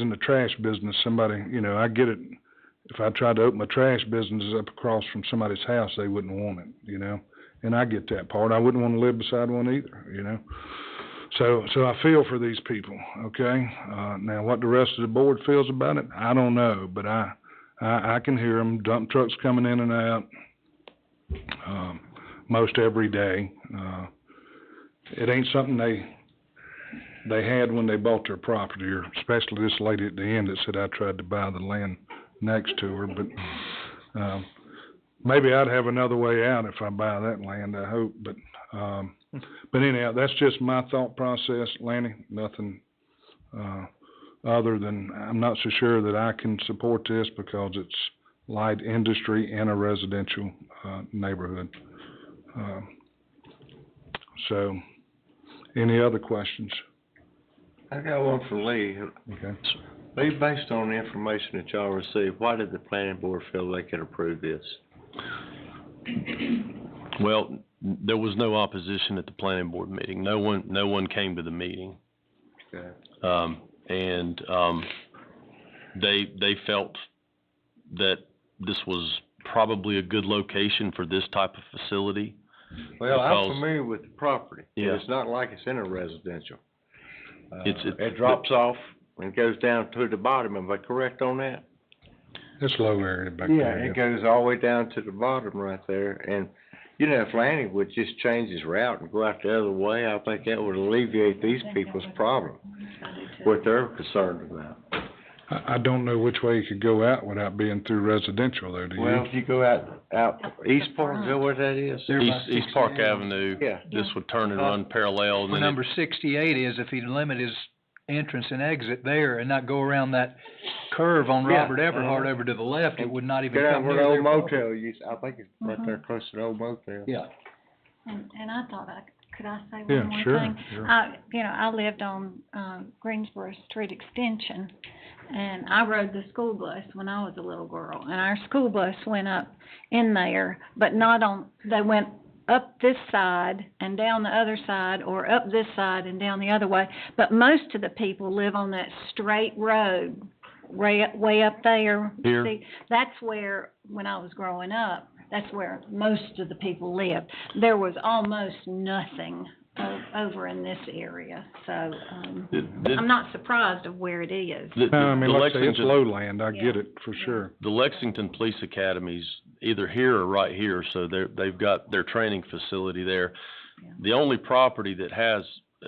in the trash business, somebody, you know, I get it. If I tried to open a trash business up across from somebody's house, they wouldn't want it, you know? And I get that part. I wouldn't want to live beside one either, you know? So, so I feel for these people, okay? Uh, now, what the rest of the board feels about it, I don't know, but I, I, I can hear them, dump trucks coming in and out, um, most every day. Uh, it ain't something they, they had when they bought their property, or especially this lady at the end that said I tried to buy the land next to her, but, um, maybe I'd have another way out if I buy that land, I hope, but, um, but anyhow, that's just my thought process, Lanny, nothing, uh, other than, I'm not so sure that I can support this because it's light industry in a residential, uh, neighborhood. Um, So, any other questions? I got one for Lee. Okay. Lee, based on the information that y'all received, why did the planning board feel they could approve this? Well, there was no opposition at the planning board meeting. No one, no one came to the meeting. Okay. Um, and, um, they, they felt that this was probably a good location for this type of facility. Well, I'm Because- familiar with the property. but Yeah. It's not like it's in a residential. Uh, It's- it's- It drops off and goes down to the bottom. Am I correct on that? It's low area back Yeah, there. it goes all the way down to the bottom right there. And, you know, if Lanny would just change his route and go out the other way, I think that would alleviate these people's problem, what they're concerned about. I, I don't know which way you could go out without being through residential though, do you? Well, if you go out, out Up the East Park, is that front. what that is? East, East Park Avenue, Yeah. this would turn and run parallel and Well, then it- number sixty-eight is if he'd limit his entrance and exit there and not go around that curve on Yeah, Robert Everhart uh-huh. over to the left, it would not even Get out come where near the their old property. motel used, I think it's right there Uh-huh. close to the old motel. Yeah. And, and I thought I, could I say Yeah, one more thing? sure, Uh, sure. I, you know, I lived on, um, Greensboro Street Extension, and I rode the school bus when I was a little girl, and our school bus went up in there, but not on, they went up this side and down the other side, or up this side and down the other way, but most of the people live on that straight road, way, way up there. Here. See, That's where, when I was growing up, that's where most of the people lived. There was almost nothing o- over in this area, so, um, the, I'm the- not surprised of where it is. the- No, I mean, the like I say, it's Lexington- lowland, I get Yeah. it for sure. The Lexington Police Academy's either here or right here, so they're, they've got their training facility there. Yeah. The only property that has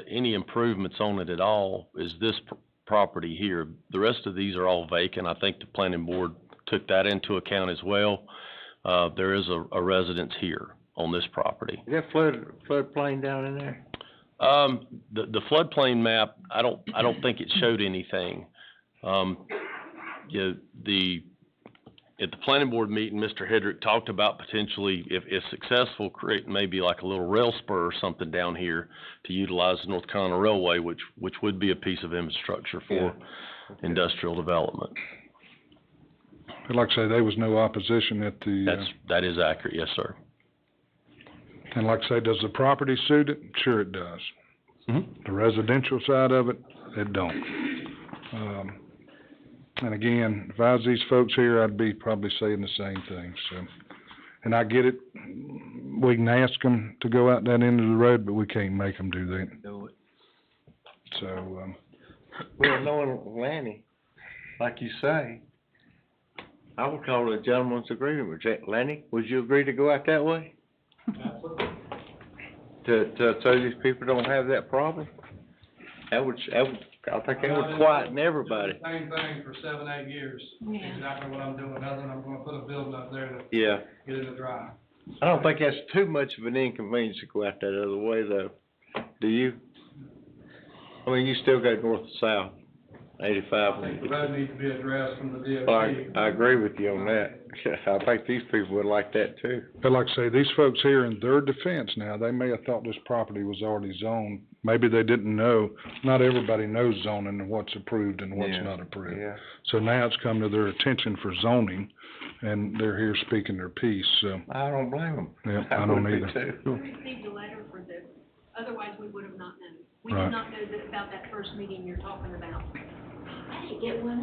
any improvements on it at all is this pr- property here. The rest of these are all vacant. I think the planning board took that into account as well. Uh, there is a, a residence here on this property. Is that flood, floodplain down in there? Um, the, the floodplain map, I don't, I don't think it showed anything. Um, you know, the, at the planning board meeting, Mr. Hedrick talked about potentially, if, if successful, create maybe like a little rail spur or something down here to utilize the North Carolina Railway, which, which would be a piece of infrastructure for industrial development. But like I say, there was no opposition at the, That's, uh, that is accurate, yes, sir. and like I say, does the property suit it? Sure it does. Mhm. The residential side of it, it don't. Um, and again, if I was these folks here, I'd be probably saying the same thing, so. And I get it, we can ask them to go out that end of the road, but we can't make them do that. Do it. So, um, Well, knowing Lanny, like you say, I would call it a gentleman's agreement. Would you- Lanny, would you agree to go out that way? To, to, so these people don't have that problem? That would, that would, I think that would quieten everybody. Same thing for seven, eight years. Yeah. Exactly what I'm doing, other than I'm gonna put a building up there to Yeah. get it to dry. I don't think that's too much of an inconvenience to go out that other way though, do you? I mean, you still go north to south, I eighty-five. think the road needs to be addressed from the DOT. I, I agree with you on that. I think these people would like that too. But like I say, these folks here in their defense now, they may have thought this property was already zoned. Maybe they didn't know, not everybody knows zoning and what's approved and what's Yeah, not approved. So now it's come to their attention for zoning and they're here speaking their piece, so, I don't blame them. yeah, I don't would be either. too. We received a letter for this, otherwise we would have not known. We Right. did not know that about that first meeting you're talking about. I need to get one